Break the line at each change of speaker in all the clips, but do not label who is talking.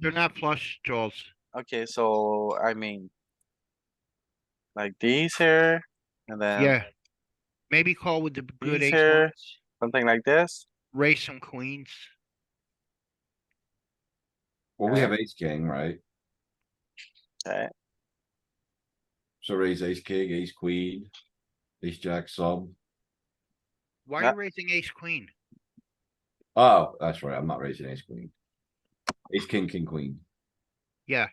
They're not flush draws.
Okay, so I mean. Like these here, and then
Yeah. Maybe call with the good
These
ace
are-
ones,
something like this.
raise some queens.
Well, we have ace king, right?
Okay.
So raise ace king, ace queen, ace jack sub.
Why
Yeah.
are you raising ace queen?
Oh, that's right. I'm not raising ace queen. Ace king, king queen.
Yeah.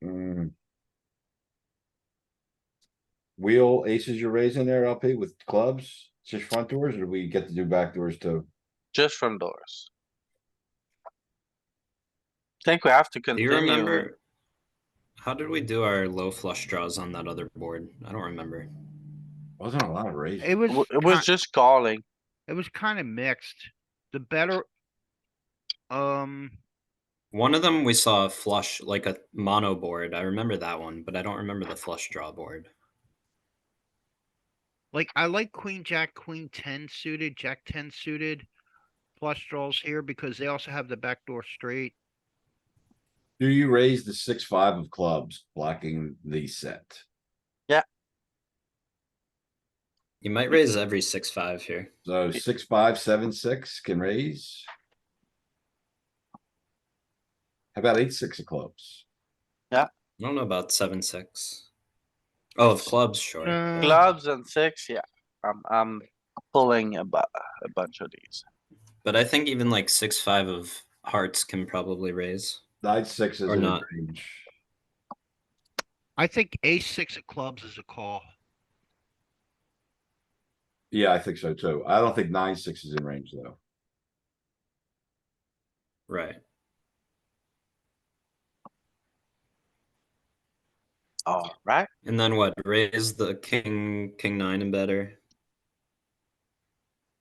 Hmm. Wheel aces you're raising there, LP with clubs, just front doors, or do we get to do back doors too?
Just from doors. Think we have to
Do you
continue.
remember? How did we do our low flush draws on that other board? I don't remember.
Wasn't a lot of raises.
It was,
W- It
ki-
was just calling.
it was kinda mixed. The better. Um,
One of them we saw a flush, like a mono board. I remember that one, but I don't remember the flush draw board.
like I like queen, jack, queen ten suited, jack ten suited. Flush draws here because they also have the backdoor straight.
Do you raise the six, five of clubs blocking the set?
You might raise every six five here.
So six, five, seven, six can raise. How about eight, six of clubs?
I don't know about seven six. Oh, of clubs, sure.
Uh,
Clubs and six, yeah. I'm, I'm pulling a bu- a bunch of these.
But I think even like six five of hearts can probably raise.
Nine, six is
Or
in
not.
range.
I think ace six of clubs is a call.
Yeah, I think so too. I don't think nine, six is in range though.
Right.
Alright,
And then what? Raise the king, king nine and better.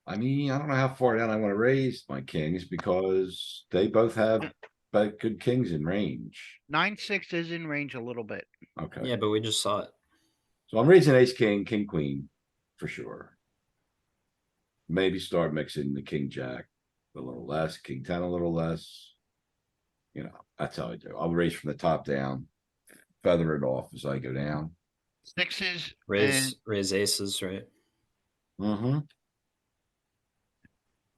I mean, I don't know how far down I wanna raise my kings because they both have but good kings in range.
Nine, six is in range a little bit.
Okay,
Yeah, but we just saw it.
so I'm raising ace, king, king, queen for sure. Maybe start mixing the king, jack a little less, king ten a little less. You know, that's how I do. I'll raise from the top down, feather it off as I go down.
Sixes
Raise
and
raise aces, right?
Mm-hmm.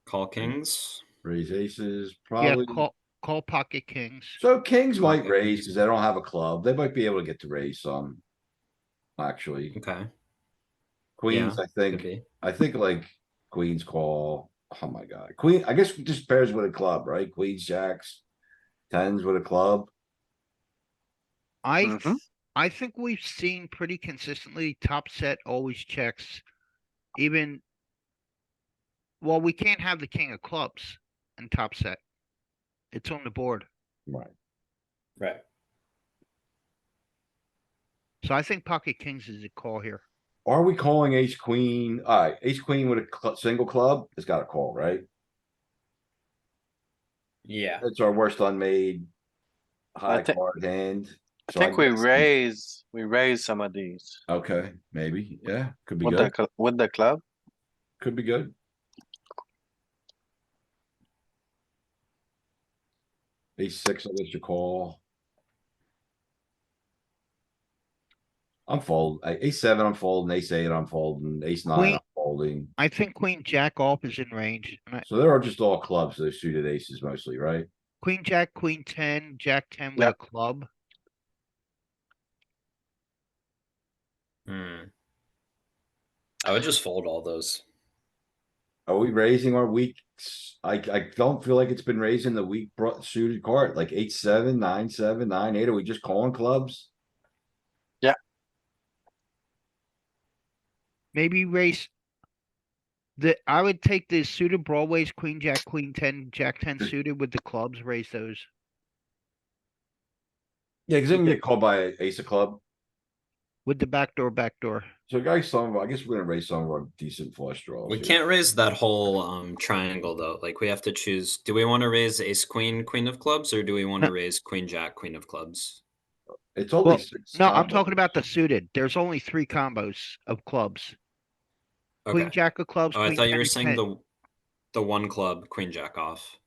Call kings.
Raise aces,
yeah,
probably.
call, call pocket kings.
So kings might
Okay.
raise because they don't have a club. They might be able to get to raise some. Actually,
Okay.
queens, I
Could
think,
be.
I think like queens call, oh my god, queen, I guess just pairs with a club, right? Queens, jacks. Tens with a club.
I,
Mhm.
th- I think we've seen pretty consistently top set always checks, even. Well, we can't have the king of clubs in top set. It's on the board,
Right.
Right.
so I think pocket kings is a call here.
Are we calling ace queen? Alright, ace queen with a cl- single club has got a call, right?
Yeah.
That's our worst unmade. High
thi-
card hand.
I
So I
think we
guess-
raise, we raise some of these
Okay, maybe, yeah, could be
with the,
good,
cl- with the club.
could be good. Ace six, I guess you call. I'm fold, A- ace seven, I'm folding, ace eight, I'm folding, ace nine,
Queen-
I'm folding.
I think queen jack off is in range, and I-
So there are just all clubs, those suited aces mostly, right?
queen jack, queen ten, jack ten with a
Yep.
club.
Hmm. I would just fold all those.
Are we raising our weak? s- I, I don't feel like it's been raising the weak bro- suited card, like eight, seven, nine, seven, nine, eight. Are we just calling clubs?
Maybe raise. The, I would take the suited broadways, queen, jack, queen, ten, jack, ten suited with the clubs, raise those.
Yeah, cuz they can get called by ace of club.
With the backdoor, backdoor.
So guys, some, of- I guess we're gonna raise some of our decent flush draws.
We
here.
can't raise that whole um triangle though. Like we have to choose. Do we want to raise ace queen, queen of clubs, or do we want to raise queen jack, queen of clubs?
It's
Well,
only six.
No, I'm
combos.
talking about the suited. There's only three combos of clubs.
Okay.
Queen, jack of clubs.
oh, I
queen,
thought you
ten
were
of
saying
ten.
the the one club, queen jack off.